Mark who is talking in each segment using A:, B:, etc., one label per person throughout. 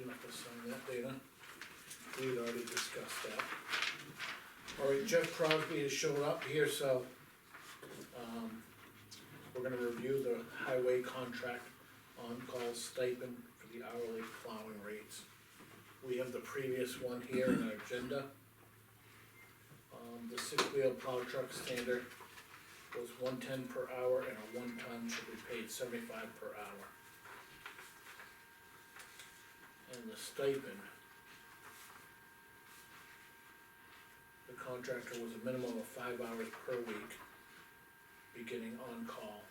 A: on that, Dana. We had already discussed that. Alright, Jeff Crosby has shown up here, so, um, we're gonna review the highway contract on-call stipend for the hourly plowing rates. We have the previous one here in our agenda. Um, the six-wheel plow truck standard was one-ten per hour and a one-ton should be paid seventy-five per hour. And the stipend. The contractor was a minimum of five hours per week, beginning on call.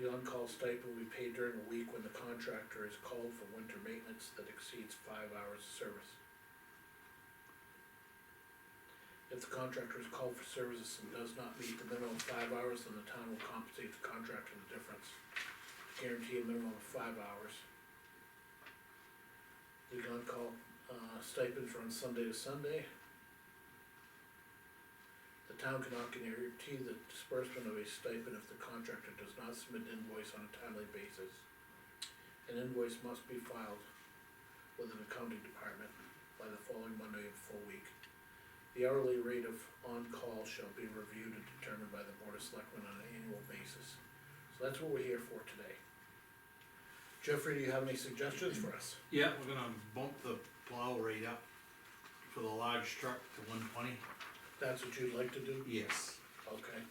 A: The on-call stipend will be paid during a week when the contractor is called for winter maintenance that exceeds five hours of service. If the contractor is called for services and does not meet the minimum of five hours, then the town will compensate the contractor the difference guarantee a minimum of five hours. The on-call, uh, stipends run Sunday to Sunday. The town cannot guarantee the disbursement of a stipend if the contractor does not submit an invoice on a timely basis. An invoice must be filed with an accounting department by the following Monday of the full week. The hourly rate of on-call shall be reviewed and determined by the board of selectmen on an annual basis. So that's what we're here for today. Jeffrey, do you have any suggestions for us?
B: Yeah, we're gonna bump the plow rate up for the large truck to one twenty.
A: That's what you'd like to do?
B: Yes.
A: Okay.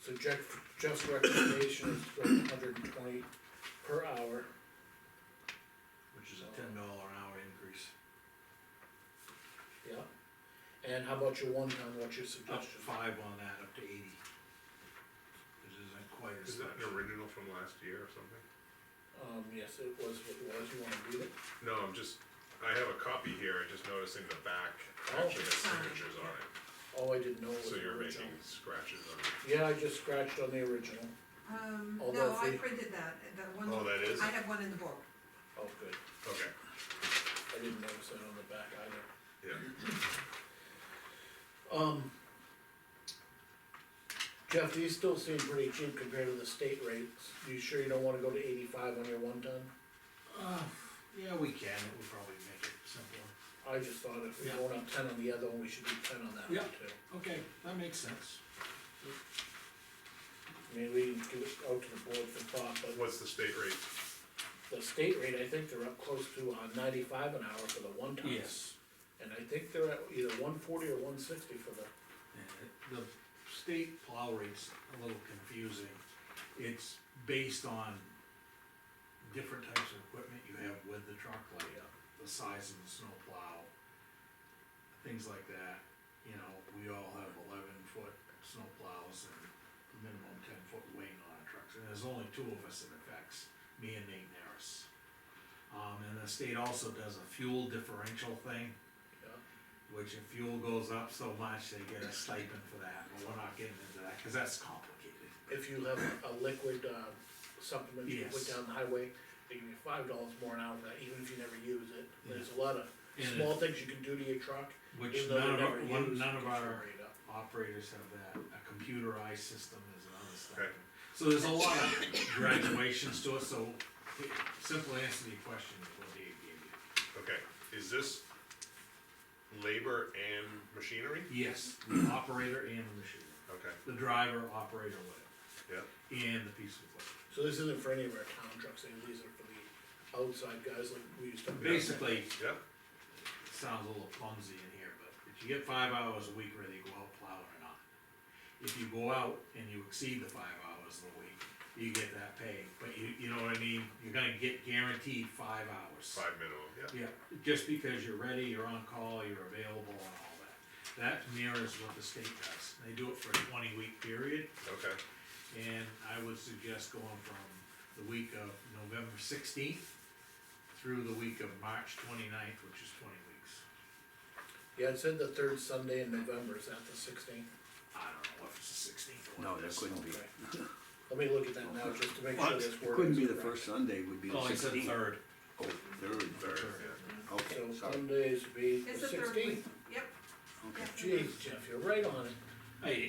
A: So Jeff, Jeff's recommendation is for hundred and twenty per hour,
B: Which is a ten dollar an hour increase,
A: yeah? And how about your one ton, what's your
B: up
A: suggestion?
B: five on that, up to eighty. This isn't quite as
C: Is that an
B: much.
C: original from last year or something?
A: Um, yes, it was what it was, you wanna read it?
C: No, I'm just, I have a copy here, I just noticing the back
A: Oh.
C: actually has signatures on it,
A: Oh, I didn't know it was
C: so
A: the
C: you're
A: original.
C: making scratches on it.
A: Yeah, I just scratched on the original.
D: Um,
A: Although
D: no,
A: if
D: I
A: we-
D: printed that, that one.
C: Oh, that is?
D: I have one in the book.
A: Oh, good.
C: Okay,
A: I didn't notice that on the back either.
C: yeah,
A: Um. Jeff, these still seem pretty cheap compared to the state rates. You sure you don't wanna go to eighty-five on your one ton?
B: Uh, yeah, we can, it would probably make it simpler.
A: I just thought if we're
B: Yeah.
A: going up ten on the other one, we should do ten on that
B: Yeah.
A: one too.
B: Okay, that makes sense.
A: I mean, we can give it out to the board for thought, but
C: what's the state rate?
A: the state rate, I think they're up close to uh, ninety-five an hour for the one tons.
B: Yes,
A: And I think they're at either one forty or one sixty for the,
B: and the state plow rate's a little confusing. It's based on different types of equipment you have with the truck, like the size of the snow plow, things like that. You know, we all have eleven foot snow plows and minimum ten foot weight on our trucks, and there's only two of us in effects, me and Nate Naris. Um, and the state also does a fuel differential thing.
A: Yeah.
B: Which if fuel goes up so much, they get a stipend for that, but we're not getting into that, cause that's complicated.
A: if you have a liquid, uh, supplement you put
B: Yes.
A: down the highway, they give you five dollars more an hour for that, even if you never use it. There's a lot of
B: And it-
A: small things you can do to your truck,
B: Which
A: even though
B: none
A: they're
B: of our,
A: never used.
B: one, none
A: gets
B: of
A: your
B: our
A: rate up.
B: operators have that, a computerized system is another
C: Okay.
B: stipend. So there's a lot of graduations to it, so the simple answer to your question is what Dave gave
C: Okay, is this labor and machinery?
B: you. Yes, the operator and the machine,
C: Okay,
B: the driver, operator, whatever,
C: yeah,
B: and the piece of equipment.
A: So this isn't for any of our town trucks, and these are for the outside guys like we used to.
B: Basically,
C: yeah,
B: it sounds a little clumsy in here, but if you get five hours a week, whether you go out plowing or not. If you go out and you exceed the five hours in a week, you get that pay, but you, you know what I mean, you're gonna get guaranteed five hours.
C: five minimum, yeah,
B: Yeah, just because you're ready, you're on call, you're available and all that. That mirrors what the state does. They do it for a twenty week period
C: okay,
B: and I would suggest going from the week of November sixteenth through the week of March 29th, which is twenty weeks.
A: Yeah, it said the third Sunday in November, is that the sixteenth?
B: I don't know if it's the sixteenth or
E: No,
B: what.
E: that couldn't be.
A: Okay. Let me look at that now, just to make sure
B: What?
A: this
E: It
A: word
E: couldn't
A: is
E: be the
A: correct.
E: first Sunday, it would be the
B: Oh, it's the
E: sixteenth.
B: third.
E: Oh, third,
C: third,
B: Third.
C: yeah.
E: okay,
A: So
E: sorry,
A: Sundays would be the
D: It's the third week.
A: sixteenth.
D: Yep.
E: okay.
D: Yes, it is.
A: Jeez, Jeff, you're right on it.
B: Hey,